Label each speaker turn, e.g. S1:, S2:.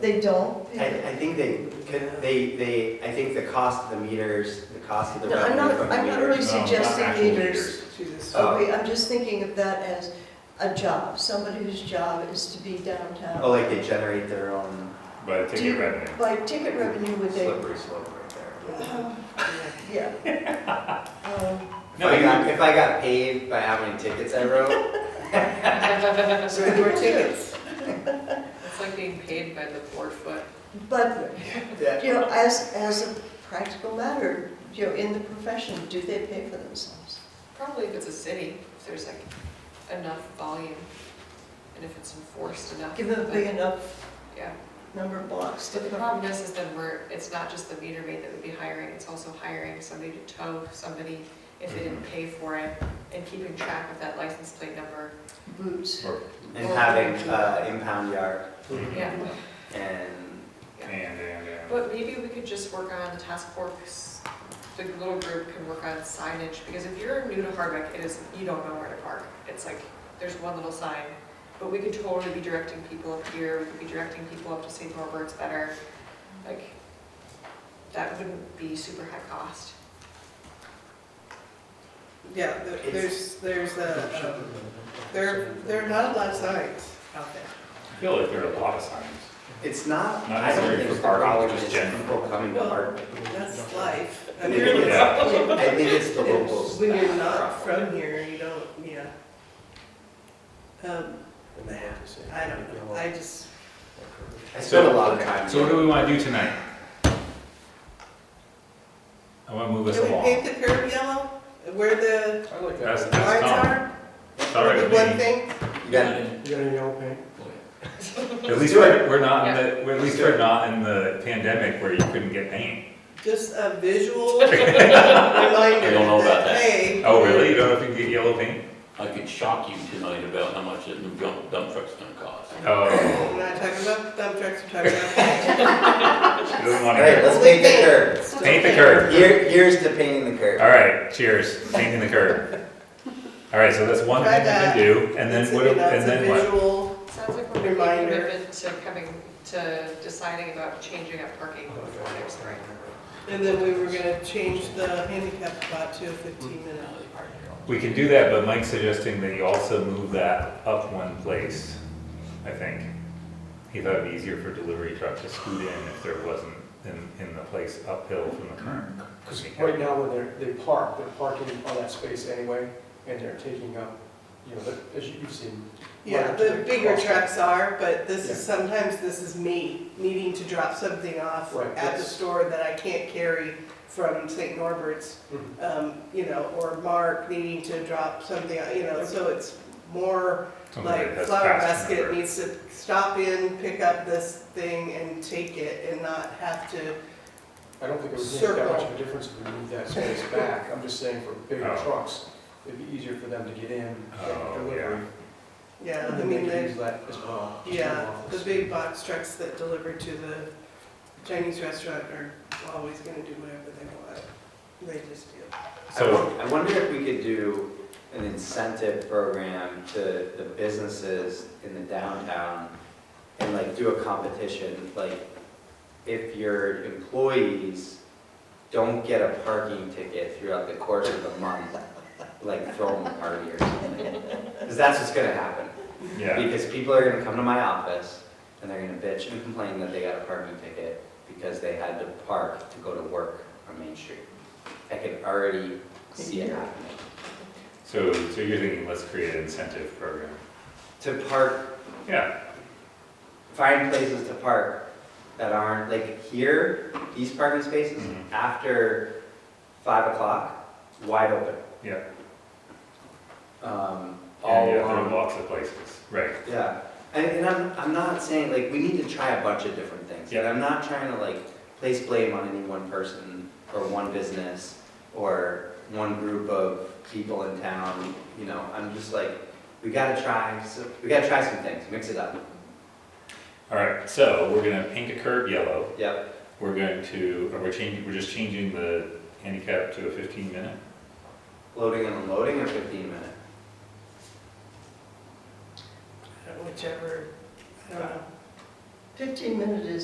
S1: They don't
S2: I,
S1: pay it.
S2: I think they, could- they, they, I think the cost of the meters, the cost of the
S1: No, I'm not-
S2: revenue from the meters.
S1: I'm not really
S3: No, not
S1: suggesting
S3: actual
S1: meters.
S4: Jesus.
S2: Oh.
S1: Okay, I'm just thinking of that as a job, somebody whose job is to be downtown.
S2: Oh, like they generate their own
S3: But
S1: Do you-
S3: ticket revenue.
S1: By ticket revenue would they,
S2: slippery slope right there.
S1: Um, yeah. Um,
S2: If
S3: No,
S2: I
S3: you-
S2: got, if I got paid by how many tickets I wrote,
S5: That's right, more tickets. It's like being paid by the four foot.
S1: But,
S2: that-
S1: you know, as, as a practical matter, you know, in the profession, do they pay for themselves?
S5: Probably if it's a city, if there's like enough volume and if it's enforced enough.
S1: Give them a
S5: but-
S1: big enough
S5: Yeah,
S1: number of blocks to
S5: but the
S1: cover.
S5: problem is, is then we're, it's not just the meter maid that would be hiring, it's also hiring somebody to tow somebody if they didn't pay for it and keeping track of that license plate number.
S1: Boots.
S3: or-
S2: and having, uh, impound yard
S6: Mm-hmm.
S5: Yeah,
S2: and,
S3: And, and, and.
S5: but maybe we could just work on the task force, the little group can work on signage, because if you're new to Hardwick, it is, you don't know where to park. It's like, there's one little sign, but we could totally be directing people up here, we could be directing people up to St. Norbert's better. Like, that wouldn't be super high cost.
S4: Yeah, there- there's, there's a, um, there, there are not a lot of signs out there.
S3: I feel like there are a lot of signs.
S2: it's not,
S3: Not
S2: I don't
S3: necessarily
S2: think
S3: for
S2: the
S3: parking,
S2: problem
S3: just
S2: is
S3: general.
S2: people coming to
S4: Well,
S2: Hardwick.
S4: That's life. I mean, it's-
S3: Yeah,
S2: I think it's the
S4: it's-
S2: locals.
S4: When you're
S2: that
S4: not
S2: are
S4: from here, you don't, yeah. Um, I don't know, I just,
S2: I spent a lot of time.
S6: So what do we want to do tonight? I want to move us
S4: can we
S6: along.
S4: paint the curb yellow where the
S7: I like
S6: That's,
S7: that.
S4: lights
S6: that's Tom.
S4: are?
S6: It's all right with
S4: Would be One
S6: me.
S4: thing,
S2: You got
S7: You got any yellow paint?
S6: At least we're, we're not in the, we're- at least we're not in the pandemic where you couldn't get paint.
S4: just a visual reminder
S8: know
S4: that,
S8: about that.
S4: hey.
S6: Oh, really? You don't know if you can get yellow paint?
S8: I could shock you tonight about how much a new dump dump truck's gonna cost.
S6: Oh,
S4: We're not talking about dump trucks, we're talking about.
S6: she doesn't
S2: All
S6: want to
S2: right,
S6: hear.
S2: let's paint the curb.
S6: it. Paint the curb.
S2: Here, here's to painting the curb.
S6: All right, cheers, painting the curb. All right, so that's one thing
S4: Try
S6: we can
S4: that.
S6: do, and
S4: It's
S6: then
S4: a-
S6: what, and
S4: that's a
S6: then what?
S4: visual
S5: Sounds like we're making a
S4: Reminder.
S5: commitment to coming, to deciding about changing up parking before next spring.
S4: And then we were gonna change the handicap spot to a fifteen minute.
S6: We can do that, but Mike's suggesting that you also move that up one place, I think. He thought it'd be easier for delivery truck to scoot in if there wasn't in, in the place uphill from the current.
S7: Because right now, when they're, they park, they're parking on that space anyway, and they're taking up, you know, the- as you've seen.
S4: Yeah,
S7: larger
S4: the bigger
S7: cross-
S4: trucks are, but this is, sometimes this is me needing to drop something off
S7: Right,
S4: at the
S7: yes.
S4: store that I can't carry from St. Norbert's,
S7: Mhm.
S4: um, you know, or Mark needing to drop something, you know, so it's more
S6: Something
S4: like
S6: that has
S4: Flower
S6: fast
S4: Basket
S6: number.
S4: needs to stop in, pick up this thing and take it and not have to,
S7: I don't think it would make that much of
S4: Circle.
S7: a difference if we moved that space back. I'm just saying for bigger
S6: Oh.
S7: trucks, it'd be easier for them to get in,
S6: Oh,
S7: get delivery.
S4: yeah,
S7: And
S4: I
S7: then
S4: mean,
S7: they
S4: they
S7: could use that as well. just turn
S4: Yeah,
S7: off
S4: the
S7: this.
S4: big box trucks that deliver to the Chinese restaurant are always gonna do whatever they want. They just do.
S2: I
S6: So,
S2: won- I wonder if we could do an incentive program to the businesses in the downtown and like do a competition, like if your employees don't get a parking ticket throughout the course of the month, like throw them a party or something. Because that's what's gonna happen.
S6: yeah,
S2: Because people are gonna come to my office and they're gonna bitch and complain that they got a parking ticket because they had to park to go to work on Main Street. I can already see it happening.
S6: so, so you're thinking, let's create an incentive program.
S2: To park,
S6: Yeah,
S2: find places to park that aren't, like here, these parking spaces,
S6: Mhm.
S2: after five o'clock, wide open.
S6: yeah,
S2: Um,
S6: yeah, yeah,
S2: all
S6: there are
S2: along
S6: lots of places, right.
S2: Yeah, and, and I'm, I'm not saying, like, we need to try a bunch of different things. And
S6: Yeah.
S2: I'm not trying to, like, place blame on any one person or one business or one group of people in town, you know, I'm just like, we gotta try, so, we gotta try some things, mix it up.
S6: All right, so we're gonna paint a curb yellow,
S2: Yep,
S6: we're going to, or we're changing, we're just changing the handicap to a fifteen minute?
S2: loading and unloading or fifteen minute?
S4: Whichever, I don't know.
S1: 15 minutes is